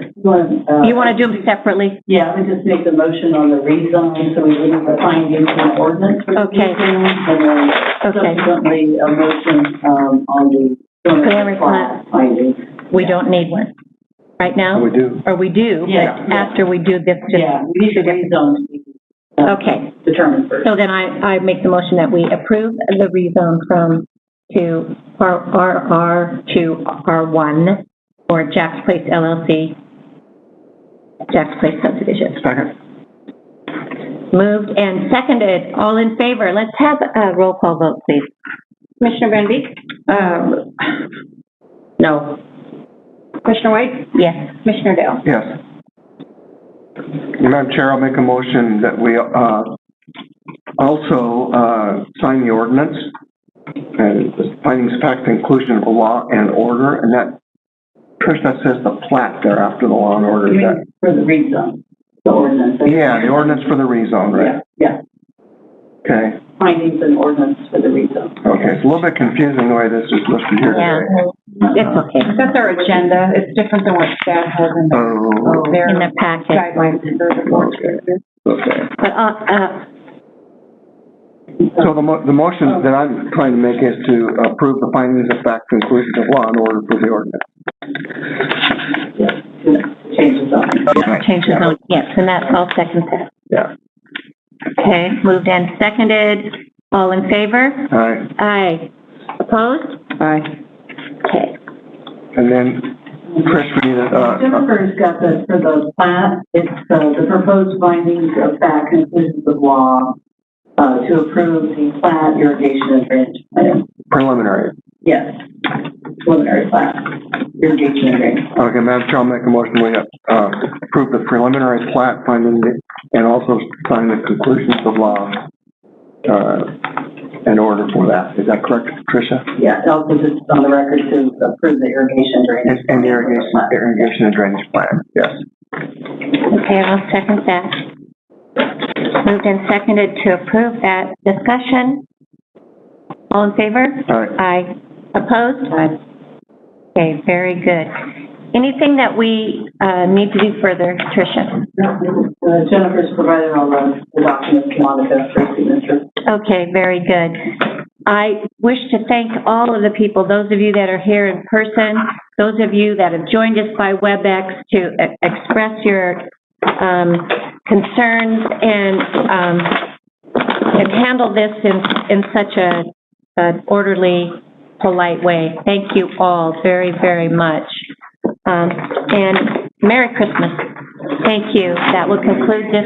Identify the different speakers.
Speaker 1: You
Speaker 2: You want to do them separately?
Speaker 1: Yeah, we just make the motion on the rezone, so we wouldn't find into an ordinance. for
Speaker 2: Okay.
Speaker 1: rezone, And then
Speaker 2: Okay.
Speaker 1: subsequently, a motion, um, on the.
Speaker 2: Clearing plan.
Speaker 1: Finding.
Speaker 2: We don't need one right now,
Speaker 3: We do.
Speaker 2: or we do,
Speaker 1: Yeah.
Speaker 2: but after we do this, just,
Speaker 1: Yeah, we need the rezone to be. uh,
Speaker 2: Okay.
Speaker 1: Determined first.
Speaker 2: so then I, I make the motion that we approve the rezone from to R- RR to R1 for Jack's Place LLC, Jack's Place subdivision.
Speaker 3: Second.
Speaker 2: Moved and seconded, all in favor, let's have a roll call vote, please.
Speaker 4: Commissioner Van Beek?
Speaker 2: Um, No,
Speaker 4: Commissioner White?
Speaker 2: yes,
Speaker 4: Commissioner Dale?
Speaker 3: Yes. Madam Chair, I'll make a motion that we, uh, also, uh, sign the ordinance and the findings, fact, inclusion of the law and order, and that, Trish, that says the plat there after the law and
Speaker 2: Oh,
Speaker 1: You
Speaker 3: order, is
Speaker 1: mean
Speaker 3: that?
Speaker 1: For the rezone, the ordinance.
Speaker 3: Yeah, the ordinance for the rezone,
Speaker 1: Yeah,
Speaker 3: right?
Speaker 1: yeah,
Speaker 3: Okay,
Speaker 1: findings and ordinance for the rezone.
Speaker 3: okay, it's a little bit confusing the way this is listed here
Speaker 2: yeah,
Speaker 3: today.
Speaker 2: it's okay,
Speaker 4: That's our agenda. It's different than what staff has in
Speaker 3: Oh,
Speaker 4: their
Speaker 2: in the packet.
Speaker 4: guidelines for the board.
Speaker 3: okay.
Speaker 2: But, uh, uh,
Speaker 3: So the mo, the motion that I'm trying to make is to approve the findings of fact, conclusion of law and order for the ordinance.
Speaker 1: Changes on.
Speaker 2: change the vote, yes, and that's all second that.
Speaker 3: Yeah.
Speaker 2: Okay, moved and seconded, all in favor?
Speaker 3: All right,
Speaker 2: Aye. Opposed?
Speaker 3: Aye.
Speaker 2: Okay,
Speaker 3: And then, Chris, we need a, uh,
Speaker 1: Jennifer's got the, for the plat, it's uh, the proposed findings of fact conclusions of law uh, to approve the plat irrigation and drainage plan.
Speaker 3: preliminary.
Speaker 1: Yes, preliminary plat, irrigation and drainage.
Speaker 3: Okay, Madam Chair, I'll make a motion, we, uh, approve the preliminary plat finding the- and also sign the conclusions of law, uh, in order for that. Is that correct, Tricia?
Speaker 1: Yes, also just on the record to approve the irrigation drainage.
Speaker 3: Yes, And the irrigation, irrigation and drainage plan, yes.
Speaker 2: okay, I'll second that. Moved and seconded to approve that discussion. All in favor?
Speaker 3: All right,
Speaker 2: Aye. Opposed? Aye. Okay, very good. Anything that we, uh, need to do further, Tricia?
Speaker 1: Uh, Jennifer's provided all the the documents to Monica for signature.
Speaker 2: Okay, very good. I wish to thank all of the people, those of you that are here in person, those of you that have joined us by WebEx to e- express your um, concerns and, um, and handle this in, in such a an orderly, polite way. Thank you all very, very much. Um, And Merry Christmas. Thank you. That will conclude this.